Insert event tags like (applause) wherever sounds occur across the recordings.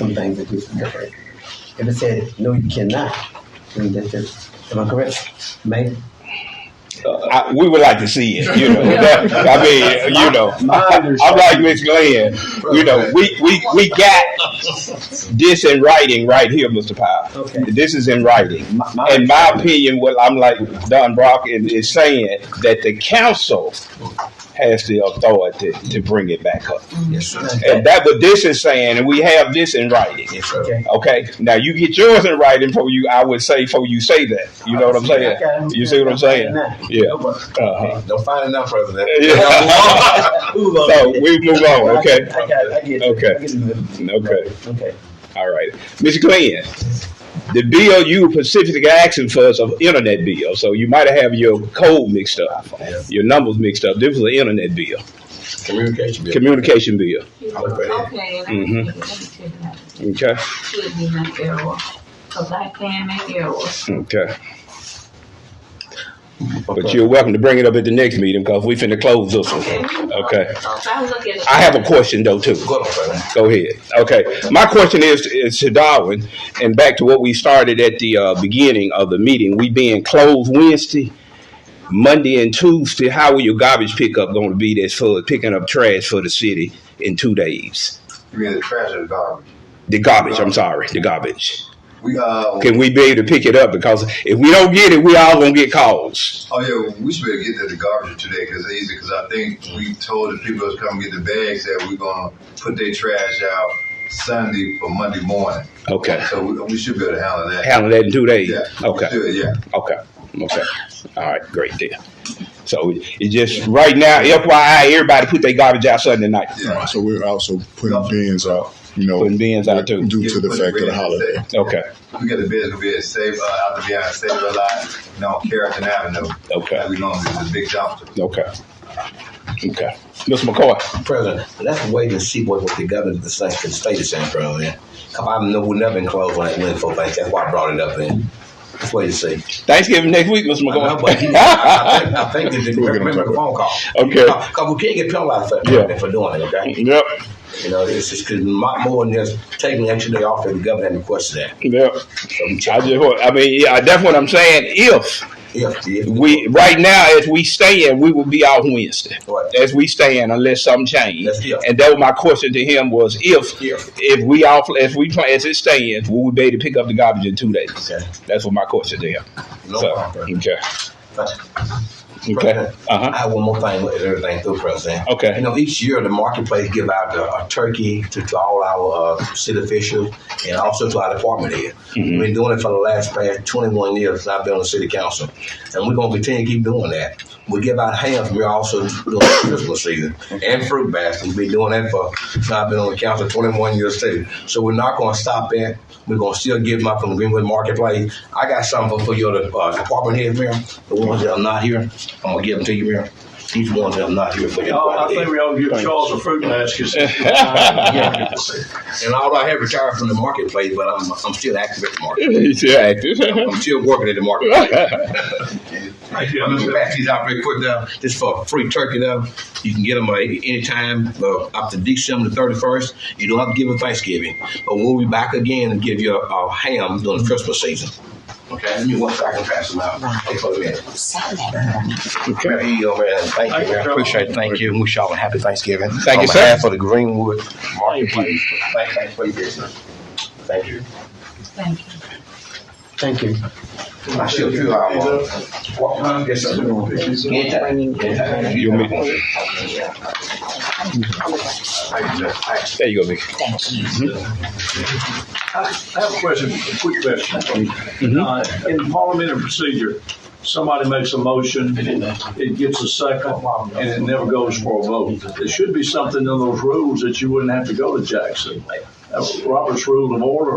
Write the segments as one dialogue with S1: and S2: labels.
S1: Sometimes it is different. If it said, no, you cannot, then that's it. Am I correct? Ma'am?
S2: I, we would like to see it, you know. That- I mean, you know,
S1: My
S2: I'm like Miss Glenn, you know, we, we, we got this in writing right here, Mr. Powell.
S1: Okay.
S2: This is in writing.
S1: My- my
S2: In my opinion, what I'm like Don Brock is, is saying that the council has the authority to bring it back up.
S1: Yes, sir.
S2: And Eh, that what this is saying, and we have this in writing.
S1: Okay.
S2: Okay. Now you get yours in writing for you. I would say for you say that. You know what I'm saying? You see what I'm saying? Yeah. Uh-huh.
S3: Don't find enough, President.
S2: Yeah.
S1: Move on.
S2: so we move on. Okay.
S1: I got it. I get it.
S2: Okay.
S1: I get it.
S2: Okay.
S1: Okay.
S2: All right, Mr. Glenn. The bill you Pacific Action for is an internet bill, so you might have your code mixed up, your numbers mixed up. This was an internet bill,
S3: Communication. bill.
S2: communication bill.
S4: Okay, and I
S2: Mhm.
S4: think that's good enough.
S2: Okay.
S4: Should be my error, cause I can make errors.
S2: Okay. But you're welcome to bring it up at the next meeting because we finna close this one. Okay.
S4: If I look at it.
S2: I have a question though too.
S3: Go ahead, President.
S2: Go ahead. Okay. My question is, is to Darwin, and back to what we started at the uh, beginning of the meeting. We being closed Wednesday, Monday, and Tuesday. How will your garbage pickup going to be that's for picking up trash for the city in two days?
S5: You mean the trash or the garbage?
S2: The garbage. I'm sorry. The garbage.
S5: We uh
S2: Can we be able to pick it up? Because if we don't get it, we all gonna get calls.
S5: oh yeah, we should be able to get to the garbage today because it's easy. Because I think we told the people that's come get the bags that we're gonna put their trash out Sunday for Monday morning.
S2: Okay.
S5: So we, we should be able to handle that.
S2: Handle that in two days.
S5: Yeah. we
S2: Okay.
S5: should, yeah.
S2: Okay, okay. All right, great deal. So it just, right now, FYI, everybody put their garbage out Sunday night.
S5: Yeah.
S6: So we're also putting bins out, you know,
S2: Putting bins out too.
S6: due to the fact of the holiday.
S2: Okay,
S5: We got the bids gonna be at Save uh, out to be on Save a lot, you know, on Carrollton Avenue.
S2: Okay.
S5: Like we normally do the big dumpster.
S2: okay. Okay. Mr. McCoy,
S3: President, let's wait and see what, what the governor of the state, the state is saying, President. Come on, I know we've never been closed like Linfield Bank. That's why I brought it up in. Let's wait and see.
S2: Thanksgiving next week, Mr.
S3: I, know, but you- I, I
S2: McCoy. (laughs)
S3: think, I think that the
S6: We're gonna
S3: remember
S6: talk
S3: the phone call.
S2: Okay.
S3: Because we can't get penalized for,
S2: Yeah.
S3: for doing it, okay?
S2: (laughs) Yep,
S3: You know, it's just because more than just taking the extra day off that the governor had requested that.
S2: yep. I just, want- I mean, yeah, that's what I'm saying, if
S3: If, if
S2: we, right now, as we stand, we will be out Wednesday.
S3: Right.
S2: As we stand, unless something change.
S3: That's- yeah.
S2: And that was my question to him was, if,
S3: Yeah.
S2: if we off, if we, plan- as it stands, will we be able to pick up the garbage in two days?
S3: Okay.
S2: That's what my question to him.
S3: No
S2: So,
S3: problem.
S2: okay, (laughs) okay,
S3: President, I
S2: uh-huh,
S3: have one more thing with everything through, President.
S2: Okay.
S3: You know, each year the marketplace give out a, a turkey to, to all our uh, city officials and also to our department head. We've been doing it for the last past 21 years since I've been on the city council. And we're going to continue to keep doing that. We give out hams. We're also doing it Christmas season and fruit baskets. We've been doing that for since I've been on the council 21 years too. So we're not going to stop that. We're going to still give them out from Greenwood Marketplace. I got something for your uh, department head, Mayor. The ones that are not here, I'm going to give them to you, Mayor. These ones that are not here for your
S7: Oh,
S3: department
S7: I think
S3: head.
S7: we ought to give Charles a fruit basket.
S3: And although I have retired from the marketplace, but I'm, I'm still active at the market.
S2: he's still active. (laughs)
S3: I'm still working at the
S7: (laughs)
S3: marketplace.
S7: Thank you,
S3: I'm
S7: Mr.
S3: gonna pass these out very quick now. Just for free turkey though. You can get them uh, anytime uh, up to December the 31st. You don't have to give it Thanksgiving. But we'll be back again and give you a, a ham during the Christmas season. Okay, let me one second pass them out. Thanks for a minute. Mayor, here you go, man. Thank
S7: Thank
S3: you,
S7: you,
S3: man.
S7: Charles.
S3: Appreciate it. Thank you. Wish y'all a happy Thanksgiving.
S2: Thank you, sir.
S3: On behalf of the Greenwood Marketplace. Thank- Thanks for your business. Thank you.
S4: Thank you.
S1: Thank you.
S3: I still feel I want. Yes, sir. Anytime. Anytime.
S2: You want me- There you go, Vic.
S7: I have a question, a quick question. Uh, In parliamentary procedure, somebody makes a motion, it gets a second, and it never goes for a vote. There should be something in those rules that you wouldn't have to go to Jackson. Uh, Robert's Rule of Order.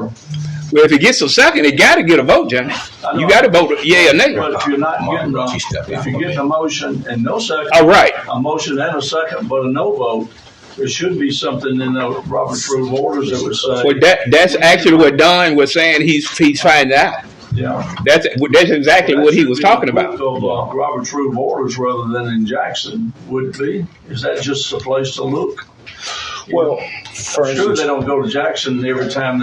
S2: Well, if it gets a second, it gotta get a vote, Johnny.
S7: I know.
S2: You gotta vote, yeah, or nay.
S7: But if you're not getting,
S3: Martin, she stepped
S7: a-
S3: out
S7: if you're
S3: for me.
S7: getting a motion and no second.
S2: All right.
S7: A motion and a second, but a no vote, there should be something in the Robert's Rule of Orders that would
S2: Well,
S7: say,
S2: that, that's actually what Don was saying, he's, he's finding out.
S7: yeah.
S2: That's, that's exactly what he
S7: That
S2: was
S7: should be
S2: talking
S7: in
S2: about.
S7: both Of uh, Robert's Rule of Orders rather than in Jackson would be. Is that just a place to look? Well,
S1: For
S7: sure,
S1: instance,
S7: they don't go to Jackson every time